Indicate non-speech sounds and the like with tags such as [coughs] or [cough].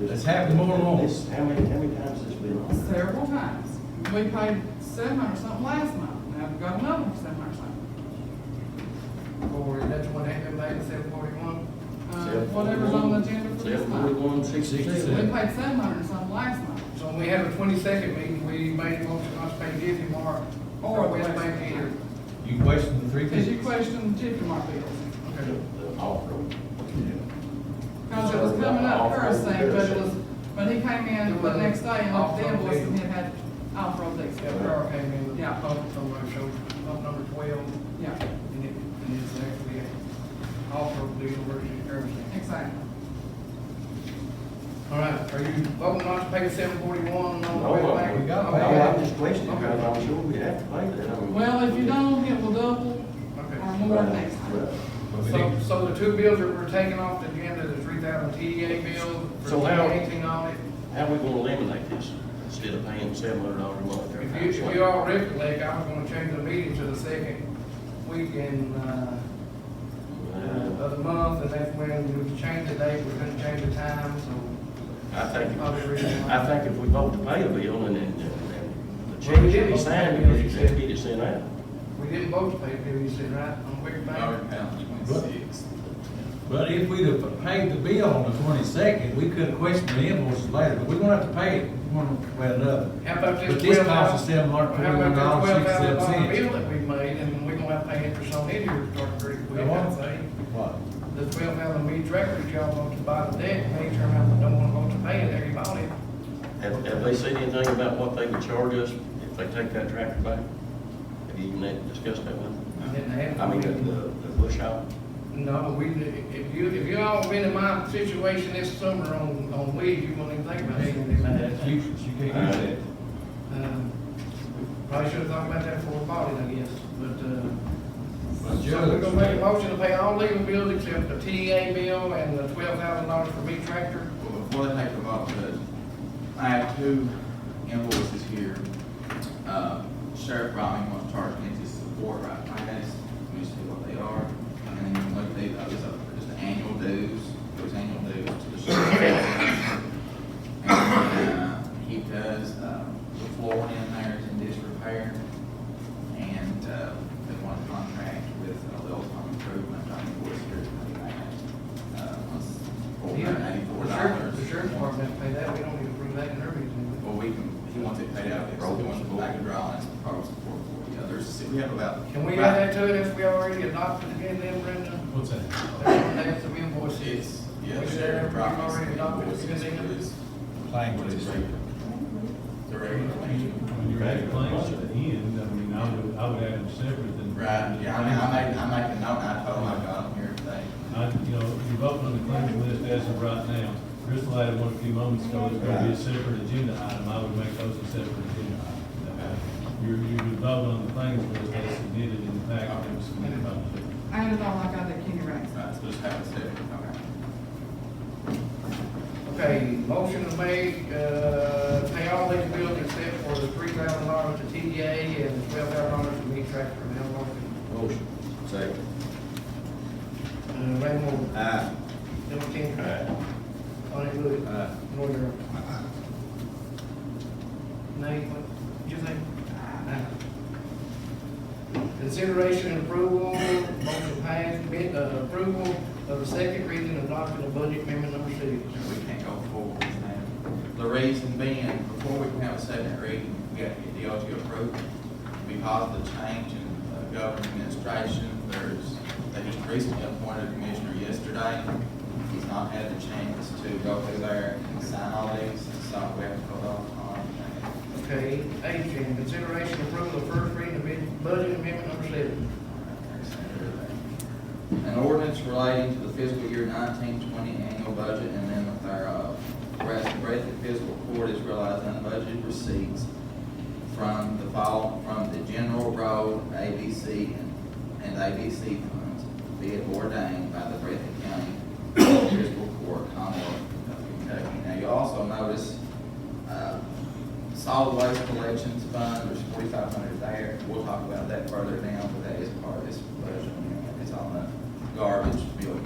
It's happened more than once. This- How many, how many times has this been on? several times. We paid seven hundred something last month, now we've got another seven hundred something. Or that's what happened back in seven forty-one? Uh, whatever's on the agenda for this month. Seven, We sixty-two. paid seven hundred something last month. So when we have a twenty-second meeting, we made a motion not to pay Jiffy Mark or West Bank here. You wasted the three Because you fifty. questioned Jiffy Mart bills. Okay. Because it was coming up first thing, but it was, but he came in the next day and looked at the invoice and it had off-road Yeah, lease. Carl came in with Yeah. a pump, somebody showed pump number twelve, Yeah, and it, and it's actually a offer of legal version, everything. exactly. All right, are you voting not to pay seven forty-one on the No, West but Bank? we got No, that. Okay. I'm just questioning, because I'm sure we have to pay that. I mean- Well, if you don't, it will double or Okay. more next time. Right. So, so the two bills that were taken off the agenda, the three thousand TDA bill for So how- twenty eighteen audit, How are we gonna eliminate this instead of paying seven hundred dollars a month? every If time? you, if you all recollect, I was gonna change the meeting to the second week in, uh, uh, Uh, of the month, and that's when we changed the date, we're gonna change the time, so. I think, Probably the reason why. I think if we vote to pay a bill and then, and and the check should be signed, and the check get it sent out. We didn't vote to pay the bill, you said, right, on Wick Bank? But if we'd have paid the bill on the twenty-second, we could have questioned the invoices later, but we're gonna have to pay it one way or another. How about this? But this $12,000 cost us $741.67. How about this twelve thousand dollar bill that we made, and we're gonna have to pay interest on it here, start pretty quick, Now, I'd what? say. What? The twelve thousand meat records, y'all want to buy the debt, and they turn around, and don't wanna vote to pay it, there you bought it. Have, have they said anything about what they would charge us if they take that tractor back? Have you even discussed that one? I didn't have. I mean, the, the the bush hog? No, we, if you, if you all been in my situation this summer on, on weed, you wouldn't even think about That's it. useless, you can't use that. Um, Probably should have thought about that before we bought it, I guess, but, uh. But So we're gonna make a Judge, motion to pay all legal bills except the TDA bill and the twelve thousand dollars for meat tractor. Well, before they take the vote, Judge, I have two invoices here. Uh, Sheriff Rowling wants to charge me to support right finance, let me see what they are. And then what they, I guess, uh, just the annual dues, those annual dues to the sheriff. And, uh, [coughs] he does, uh, the floor in there is in disrepair. And, uh, they want a contract with uh, Wells Farm Improvement, I think, was here, uh, was four Yeah, hundred ninety-four The sheriff, dollars. the sheriff department pay that, we don't need to approve that in their meeting. Well, we can, he wants it paid out, so he wants it back and draw, and it's probably support for the others, we have about. Can we add that to it if we already adopted it in them, Brenda? what's that? That's the invoice. It's, yeah, We the should sheriff have already adopted it, because they know. is Playing what with is this. regular. The regular language. When you're at claims at the end, I mean, I would, I would have them separate than. Right, yeah, I mean, I make, I make a note, and I told him I got him here today. I, you know, you're voting on the claims list as of right now. Crystal had one a few moments ago, it's gonna be a separate agenda item, I would make those a separate agenda item. That way, You're, you're voting on the claims list as submitted in the packet that was submitted by the. I added all I got that Kenny Rex. Right, so just have it separate, okay. Okay, motion to make, uh, pay all these bills except for the three thousand dollars to TDA and twelve thousand dollars to meat tractor and L Motion. Second. Uh, Ray Moore, Aye. Bill King, Aye. Lonnie Wood, Aye. Roy Darrell. Nate, what, you think? Aye. Consideration and approval, motion passed, bid, uh, approval of the second reading of adopting the budget amendment number six. We can't go forward with that. The reason being, before we can have a second reading, we got to get the OT approved. Because of the change in uh, government administration, there's, they just recently appointed a commissioner yesterday. He's not had the chance to go through there and sign all these, so we have to hold off on that. Okay, eighteen, consideration approval of first reading of bid- budget amendment number seven. An ordinance relating to the fiscal year nineteen twenty annual budget and amendment thereof. Whereas the Breathitt Fiscal Court has realized unbudgeted receipts from the fall, from the general road, ABC, and- and ABC funds, be it ordained by the Breathitt County Fiscal Court, Commonwealth of Kentucky. Now, you also notice, uh, solid waste collections fund, there's forty-five hundred there, we'll talk about that further down, but that is part of this budget, amendment. it's on the garbage bill